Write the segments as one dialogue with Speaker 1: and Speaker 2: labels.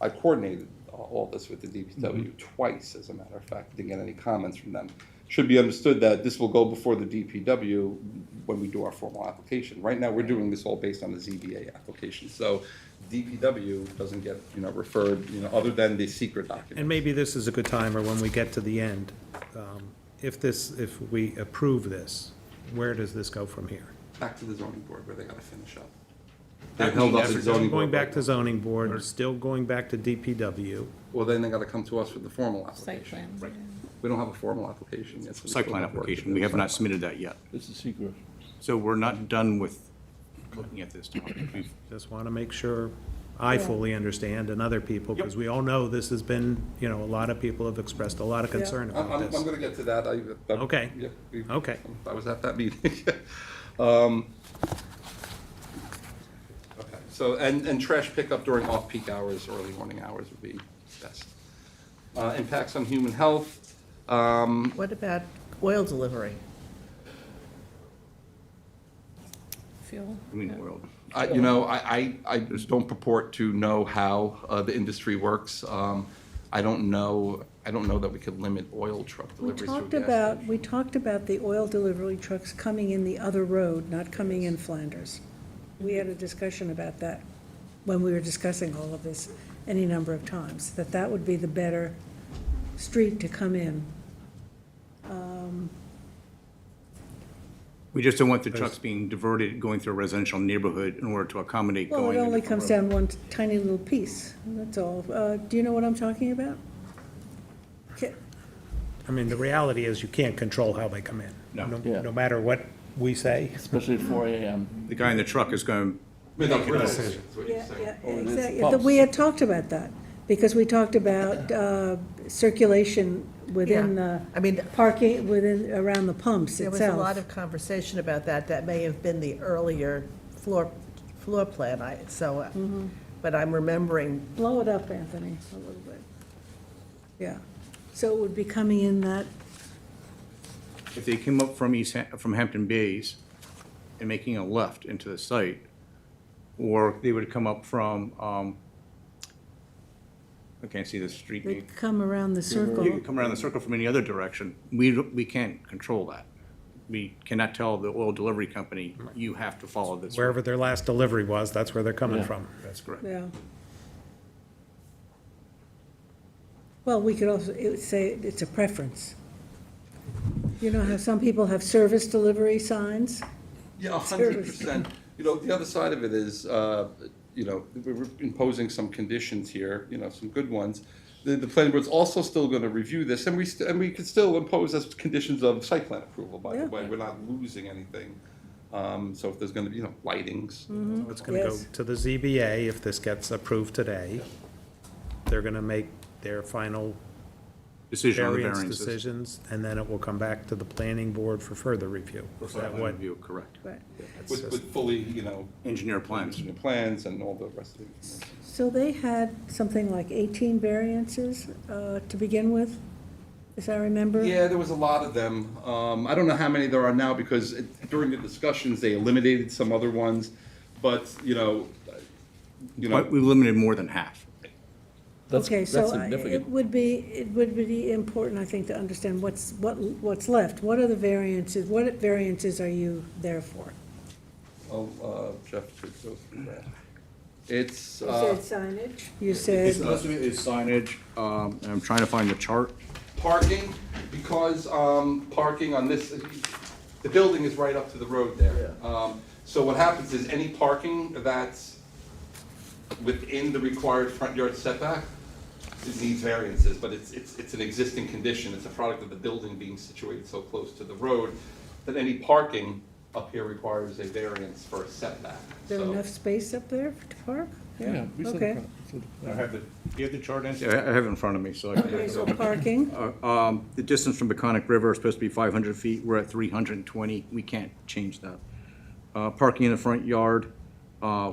Speaker 1: I coordinated uh, all this with the
Speaker 2: Mm-hmm.
Speaker 1: DPW twice, as a matter of fact, didn't get any comments from them. Should be understood that this will go before the DPW when we do our formal application. Right now, we're doing this all based on the ZBA application, so DPW doesn't get, you know, referred, you know, other than the secret document.
Speaker 3: And maybe this is a good time, or when we get to the end, um, if this, if we approve this, where does this go from here?
Speaker 1: Back to the zoning board where they gotta finish up.
Speaker 2: That
Speaker 1: They're held up
Speaker 2: means every-
Speaker 1: at zoning
Speaker 3: Going
Speaker 1: board.
Speaker 3: back to
Speaker 1: right
Speaker 3: zoning board, still going back to DPW.
Speaker 1: now. Well, then they gotta come to us with the formal
Speaker 4: Site
Speaker 1: application.
Speaker 4: plan.
Speaker 1: We don't have a formal application yet. so we
Speaker 2: Site
Speaker 1: still
Speaker 2: plan
Speaker 1: have work to
Speaker 2: application,
Speaker 1: do.
Speaker 2: we have not submitted that yet.
Speaker 5: It's a secret.
Speaker 2: So we're not done with looking at this topic. We've-
Speaker 3: Just want to make sure I fully understand and other people, because we all know this has been, you know, a lot of people have expressed a lot of concern
Speaker 1: I'm,
Speaker 3: about
Speaker 1: I'm, I'm
Speaker 3: this.
Speaker 1: gonna get to that, I. I-
Speaker 3: Okay.
Speaker 1: yeah, we-
Speaker 3: Okay.
Speaker 1: I was at that meeting. Um, Okay, so, and, and trash pickup during off-peak hours, early morning hours would be best. Uh, impacts on human health, um,
Speaker 6: What about oil delivery?
Speaker 4: Fuel.
Speaker 2: I mean, world.
Speaker 1: I, you know, I, I, I just don't purport to know how, uh, the industry works. Um, I don't know, I don't know that we could limit oil truck
Speaker 7: We
Speaker 1: deliveries to a
Speaker 7: talked
Speaker 1: gas
Speaker 7: about,
Speaker 1: station.
Speaker 7: we talked about the oil delivery trucks coming in the other road, not coming in Flanders. We had a discussion about that when we were discussing all of this any number of times, that that would be the better street to come in.
Speaker 2: We just don't want the trucks being diverted, going through a residential neighborhood in order to accommodate going.
Speaker 7: Well, it
Speaker 2: a
Speaker 7: only
Speaker 2: different
Speaker 7: comes
Speaker 2: road.
Speaker 7: down one tiny little piece, that's all. Uh, Do you know what I'm talking about? Ca-
Speaker 3: I mean, the reality is you can't control how they come in.
Speaker 2: No.
Speaker 5: Yeah.
Speaker 3: No matter what we say.
Speaker 5: Especially at four AM.
Speaker 2: The guy in the truck is going,
Speaker 1: Without limits, is what you're
Speaker 7: Yeah,
Speaker 1: saying.
Speaker 7: yeah,
Speaker 5: Oh, it is
Speaker 7: exactly.
Speaker 5: pumps.
Speaker 7: We had talked about that, because we talked about uh, circulation within
Speaker 6: Yeah.
Speaker 7: the.
Speaker 6: I mean-
Speaker 7: Parking, within, around the pumps
Speaker 6: There
Speaker 7: itself.
Speaker 6: was a lot of conversation about that, that may have been the earlier floor, floor plan, I, so, uh,
Speaker 7: Mm-hmm.
Speaker 6: but I'm remembering
Speaker 7: Blow it up, Anthony, a little bit. Yeah, so it would be coming in that,
Speaker 2: if they came up from East, Ham- from Hampton Bays and making a left into the site, or they would come up from, um, I can't see the street name.
Speaker 7: they'd come around the
Speaker 2: You can
Speaker 7: circle.
Speaker 2: come around the circle from any other direction. We, don't- we can't control that. We cannot tell the oil delivery company, you have to follow this.
Speaker 3: Wherever their last delivery was, that's where they're coming
Speaker 5: Yeah.
Speaker 3: from.
Speaker 2: That's correct.
Speaker 7: Yeah. Well, we could also, it would say it's a preference. You know how some people have service delivery signs?
Speaker 1: Yeah, a hundred percent. You know, the other side of it is, uh, you know, we're imposing some conditions here, you know, some good ones. The, the planning board's also still gonna review this, and we, st- and we could still impose as conditions of site plan approval, by the
Speaker 7: Yeah.
Speaker 1: way. We're not losing anything. Um, so if there's gonna be, you know, lightings,
Speaker 3: It's going to go
Speaker 7: Yes.
Speaker 3: to the ZBA if this gets approved today. They're going to make their final
Speaker 2: Decision on the
Speaker 3: variance
Speaker 2: variances.
Speaker 3: decisions, and then it will come back to the planning board for further review. Is that what?
Speaker 2: Review, correct.
Speaker 7: Right.
Speaker 3: that's
Speaker 1: with,
Speaker 3: just-
Speaker 1: with fully, you know,
Speaker 2: Engineer plans.
Speaker 1: engineered plans and all the rest of it.
Speaker 7: So they had something like 18 variances uh, to begin with, as I remember?
Speaker 1: Yeah, there was a lot of them. Um, I don't know how many there are now because it- during the discussions, they eliminated some other ones. But, you know, you know.
Speaker 2: But we limited more than half.
Speaker 5: That's,
Speaker 7: Okay,
Speaker 5: that's
Speaker 7: so I- it
Speaker 5: significant.
Speaker 7: would be, it would be important, I think, to understand what's, what, what's left. What are the variances, what variances are you there for?
Speaker 1: I'll, uh, Jeff could go through that. It's,
Speaker 7: You
Speaker 1: uh,
Speaker 7: said signage, you
Speaker 2: It's-
Speaker 7: said,
Speaker 2: Most of it is signage, um, and I'm trying to find the chart.
Speaker 1: parking, because, um, parking on this, the building is right up to the road there. Um, so what happens is any parking that's within the required front yard setback, it needs variances, but it's, it's, it's an existing condition, it's a product of the building being situated so close to the road, that any parking up here requires a variance for a setback,
Speaker 7: is there
Speaker 1: so.
Speaker 7: enough space up there to park?
Speaker 5: Yeah, we said the
Speaker 7: Okay,
Speaker 5: front- said the
Speaker 2: I
Speaker 5: front.
Speaker 2: have the, do you have the chart, Nancy? I I have it in front of me, so I
Speaker 7: okay,
Speaker 2: can.
Speaker 7: so parking,
Speaker 2: Um, The distance from Beconic River is supposed to be 500 feet, we're at 320, we can't change that. Uh, Parking in the front yard, uh,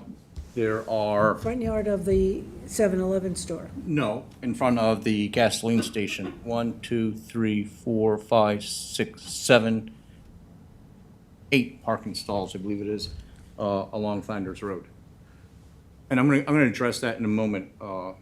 Speaker 2: there are,
Speaker 7: front yard of the 7-Eleven store.
Speaker 2: no, in front of the gasoline station, one, two, three, four, five, six, seven, eight parking stalls, I believe it is, uh, along Flanders Road. And I'm going to, I'm going to address that in a moment, uh,